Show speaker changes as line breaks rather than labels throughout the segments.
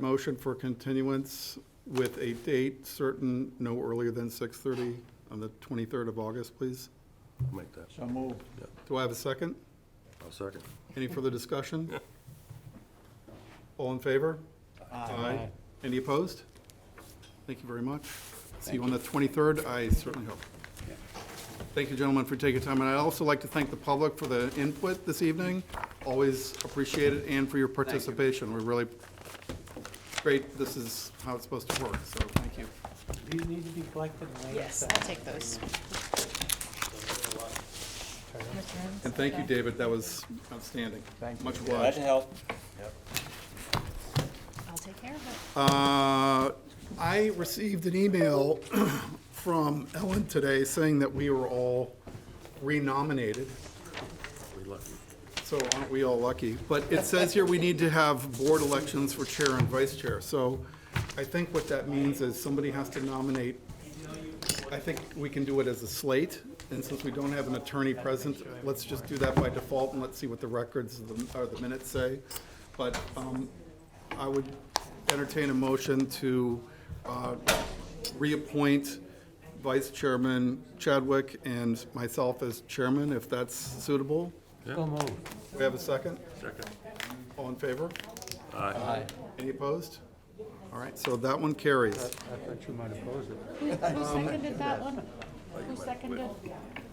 Motion for continuance with a date certain, no earlier than 6:30 on the 23rd of August, please.
Make that,
So move.
Do I have a second?
I'll second.
Any further discussion? All in favor? Aye. Any opposed? Thank you very much. See you on the 23rd, I certainly hope. Thank you, gentlemen, for taking time, and I'd also like to thank the public for the input this evening. Always appreciate it, and for your participation. We're really great, this is how it's supposed to work, so thank you.
These need to be collected later.
Yes, I'll take those.
And thank you, David, that was outstanding.
Thank you.
Much
Glad to
obliged.
help.
I'll take care of it.
Uh, I received an email from Ellen today saying that we were all renominated.
We lucky.
So aren't we all lucky? But it says here we need to have board elections for chair and vice chair. So I think what that means is somebody has to nominate, I think we can do it as a slate. And since we don't have an attorney present, let's just do that by default and let's see what the records of the- or the minutes say. But um, I would entertain a motion to uh, reappoint Vice Chairman Chadwick and myself as chairman, if that's suitable.
So move.
We have a second?
Second.
All in favor?
Aye.
I
Any opposed? All right, so that one carries.
thought you might oppose it.
Who seconded that one? Who seconded?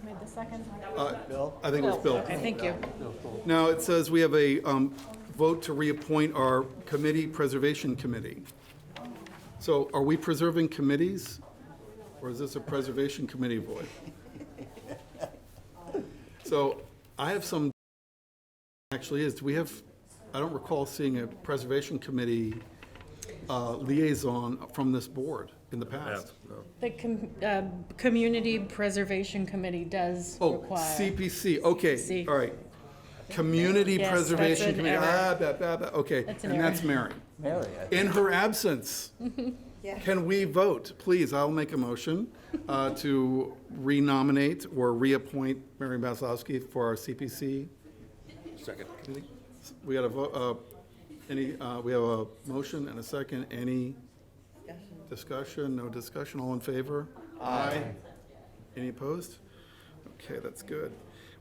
Made the second?
I think it was Bill.
Okay, thank you.
Now, it says we have a um, vote to reappoint our committee, Preservation Committee. So are we preserving committees, or is this a Preservation Committee void? So I have some, actually is, do we have, I don't recall seeing a Preservation Committee uh, liaison from this board in the past.
No.
The com- uh, Community Preservation Committee does
Oh,
require.
CPC, okay,
CPC.
all right. Community
Yes, that's
Preservation
an
Committee, ah,
error.
bah, bah, bah, okay.
That's an
And
error.
that's Mary.
Mary, I
In her absence, can we vote? Please, I'll make a motion uh, to renominate or reappoint Mary Maslowski for our CPC.
Second.
We got a, vo- uh, any, uh, we have a motion and a second, any discussion, no discussion, all in favor? Aye. Any opposed? Okay, that's good.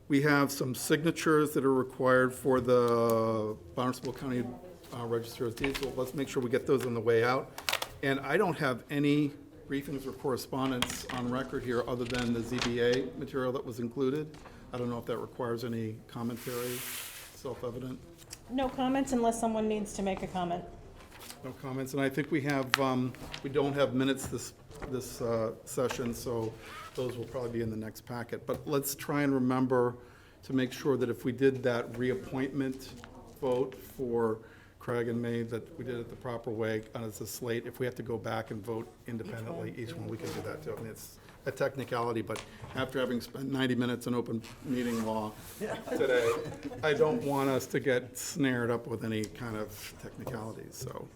We have some signatures that are required for the Bonneville County uh, Register of Deeds, so let's make sure we get those on the way out. And I don't have any briefings or correspondence on record here, other than the ZBA material that was included. I don't know if that requires any commentary, self-evident.
No comments unless someone needs to make a comment.
No comments, and I think we have, um, we don't have minutes this, this uh, session, so those will probably be in the next packet. But let's try and remember to make sure that if we did that reappointment vote for Craig and May, that we did it the proper way, and it's a slate. If we have to go back and vote independently, each one, we can do that too. And it's a technicality, but after having spent 90 minutes in open meeting law today, I don't want us to get snared up with any kind of technicalities, so.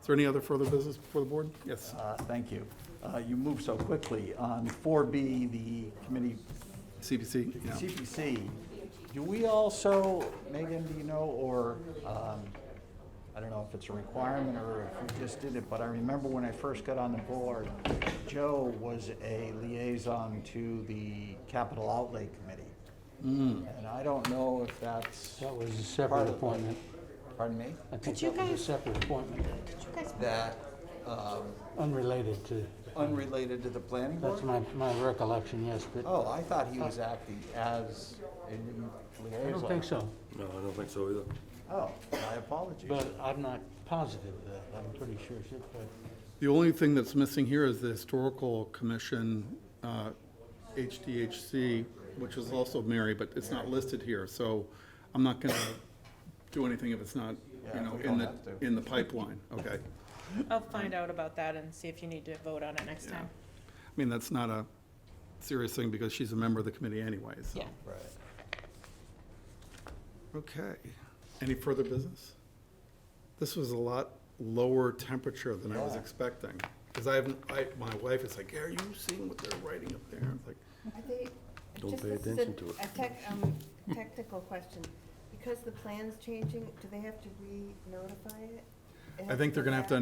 Is there any other further business before the board? Yes.
Uh, Thank you. Uh, You moved so quickly. On 4B, the committee,
CPC?
the
Yeah.
CPC, do we also, Megan, do you know, or, um, I don't know if it's a requirement or if we just did it, but I remember when I first got on the board, Joe was a liaison to the Capital Outlay Committee. And I don't know if that's.
Hmm. That was a
part
separate
of it.
appointment.
Pardon me?
I think
you
that was
guys-
a separate appointment,
That, um,
unrelated to,
unrelated to the planning board?
that's my, my recollection, yes, but
Oh, I thought he was acting as a
I
liaison.
don't think so.
No, I don't think so either.
Oh, my apologies.
But I'm not positive of that, I'm pretty sure, she- but
The only thing that's missing here is the Historical Commission, uh, HDHC, which is also Mary, but it's not listed here, so I'm not going to do anything if it's not, you
Yeah,
know,
we
in
don't
the,
have to.
in the pipeline, okay?
I'll find out about that and see if you need to vote on it next
Yeah.
time.
I mean, that's not a serious thing because she's a member of the committee anyway, so.
Yeah.
Right.
Okay. Any further business? This was a lot lower temperature than I was
Yeah.
expecting. Because I haven't, I, my wife is like, are you seeing what they're writing up there? It's like,
Are they,
Don't
just
pay
this is a-
attention to it.
A tech, um, technical question. Because the plan's changing, do they have to re-notify it?
I think they're gonna have to